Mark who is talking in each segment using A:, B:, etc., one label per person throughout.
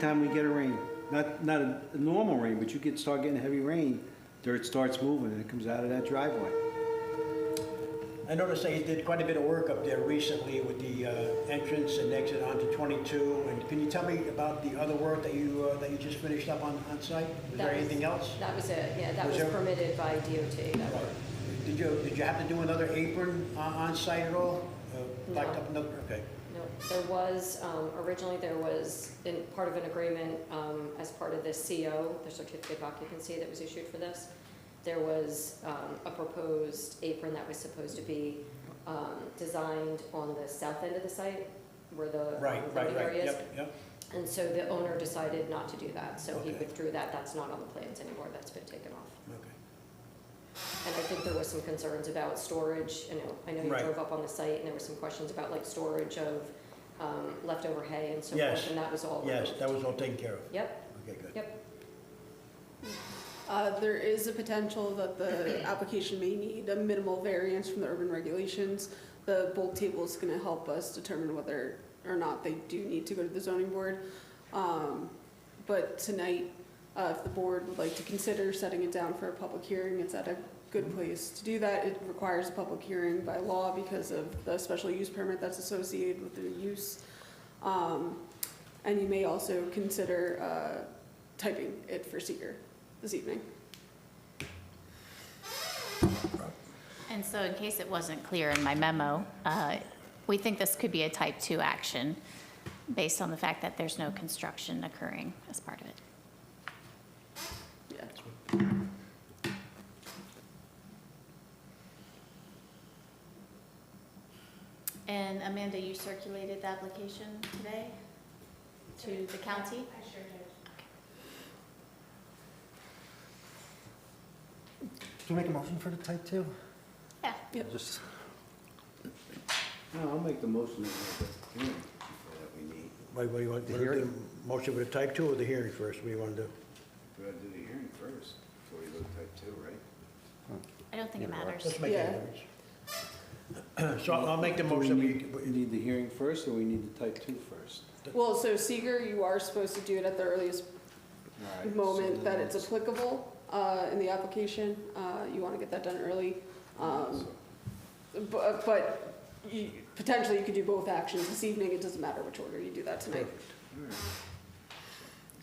A: Time we get a rain, not, not a a normal rain, but you get, start getting heavy rain, dirt starts moving and it comes out of that driveway.
B: I noticed they did quite a bit of work up there recently with the uh, entrance and exit onto 22. And can you tell me about the other work that you, uh, that you just finished up on, on site? Was there
C: That
B: anything else?
C: That was it, yeah, that
B: Was
C: was
B: there-
C: permitted by DOT. that work.
B: Did you, did you have to do another apron on, on site at all? Uh, Backed
C: No.
B: up another, okay.
C: No, there was, um, originally there was, in, part of an agreement, um, as part of the CO, the certificate of occupancy that was issued for this, there was, um, a proposed apron that was supposed to be, um, designed on the south end of the site, where the
B: Right,
C: um,
B: right,
C: loading
B: right,
C: area is.
B: yep, yep.
C: And so the owner decided not to do that, so he
B: Okay.
C: withdrew that, that's not on the plans anymore, that's been taken off.
B: Okay.
C: And I think there was some concerns about storage, you know, I know you
B: Right.
C: drove up on the site and there were some questions about like storage of um, leftover hay and so
B: Yes.
C: forth, and that was all
B: Yes,
C: removed.
B: that was all taken care of.
C: Yep,
B: Okay, good.
C: yep,
D: Uh, There is a potential that the application may need a minimal variance from the urban regulations. The bulk table is going to help us determine whether or not they do need to go to the zoning board. Um, But tonight, uh, if the board would like to consider setting it down for a public hearing, it's at a good place to do that. It requires a public hearing by law because of the special use permit that's associated with the use. Um, And you may also consider uh, typing it for seeker this evening.
E: And so in case it wasn't clear in my memo, uh, we think this could be a type 2 action based on the fact that there's no construction occurring as part of it.
D: Yeah.
E: And Amanda, you circulated the application today to the county? I sure
F: Do we make a motion for the type two?
E: Yeah.
D: Yep.
F: Just,
A: No, I'll make the motion that we have that we need.
B: Wait, what do you want,
F: The
B: what do you
F: hearing?
B: do? motion with a type two or the hearing first? What do you want to do?
A: We gotta do the hearing first, before we go to type two, right?
E: I don't think it matters.
B: Let's make
D: Yeah.
B: a difference. So I'll I'll make the motion.
A: we need, we need the hearing first, or we need the type two first?
D: Well, so seeker, you are supposed to do it at the earliest
A: All right, so
D: moment that
A: then
D: it's
A: let's-
D: applicable uh, in the application. Uh, You want to get that done early. Um, bu- But you- potentially, you could do both actions this evening. It doesn't matter which order you do that tonight.
B: Would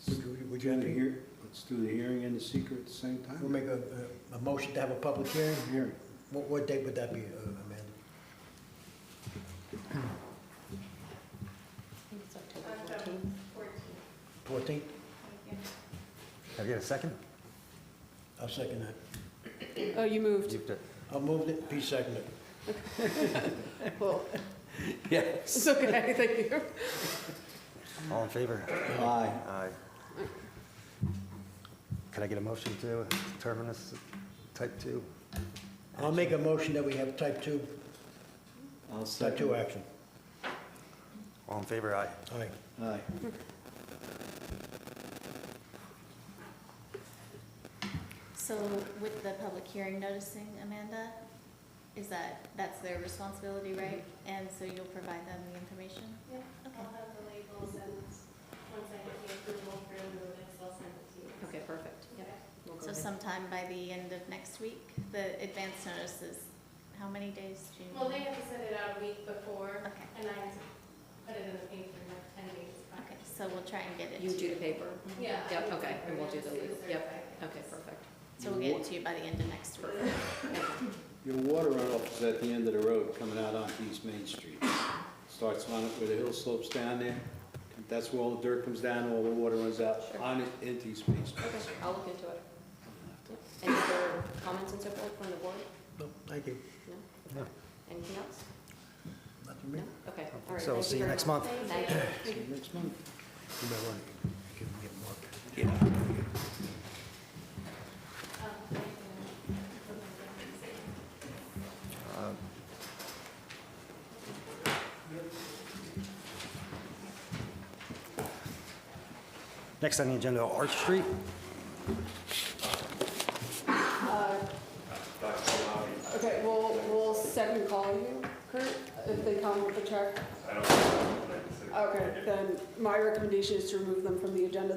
B: you- Would
A: Would
B: you
A: you
B: have
A: have
B: to
A: the
B: hear,
A: hear, let's do the hearing and the secret at the same time?
B: we'll make a, a a motion to have a public hearing?
A: Hearing.
B: What, what date would that be, uh, Amanda? Fourteenth?
F: have you got a second?
B: I'll second that.
D: Oh, you moved.
F: You've got-
B: I'll move it, Pete second it.
D: Well,
A: Yes.
D: it's okay, thank you.
F: All in favor?
A: Aye.
F: Aye. Can I get a motion to determine this type two?
B: I'll make a motion that we have type two,
A: I'll
B: type
A: second.
B: two action.
F: All in favor, aye.
B: Aye.
A: Aye.
E: So with the public hearing noticing, Amanda, is that, that's their responsibility, right? And so you'll provide them the information?
G: Yeah, I'll have the labels and once I get the approval for the next, I'll send it to you.
C: okay, perfect, yeah. we'll go
E: So
C: ahead.
E: sometime by the end of next week, the advance notice is, how many days do you?
G: Well, they have to send it out a week before,
E: Okay.
G: and I have to put it in the paper in like ten days. prior.
E: Okay, so we'll try and get it.
C: You
E: to
C: do the paper?
E: Mhm.
G: Yeah.
C: Yep, okay, and we'll do the legal, yep,
G: Certified.
C: okay, perfect.
E: So we'll get it to you by the end of next week.
A: Your water runoff is at the end of the road coming out onto East Main Street. Starts on it where the hill slopes down there. That's where all the dirt comes down, all the water runs out
C: Sure.
A: on it into East Main Street.
C: Okay, I'll look into it. Yep. Any other comments and so forth from the board?
B: No, thank you.
C: No?
F: No.
C: Anything else?
B: Not for me.
C: No? Okay, all right.
F: So we'll
C: thank
F: see you
C: very
F: next
C: much.
F: month.
C: Thank you.
A: See you next month.
B: You might want to give me a mark.
G: Um, I can-
F: Next on the agenda, Arch Street.
D: Okay, we'll, we'll second call you, Kurt, if they come with a check.
H: I don't know, but I consider
D: Okay, then my recommendation is to remove them from the agenda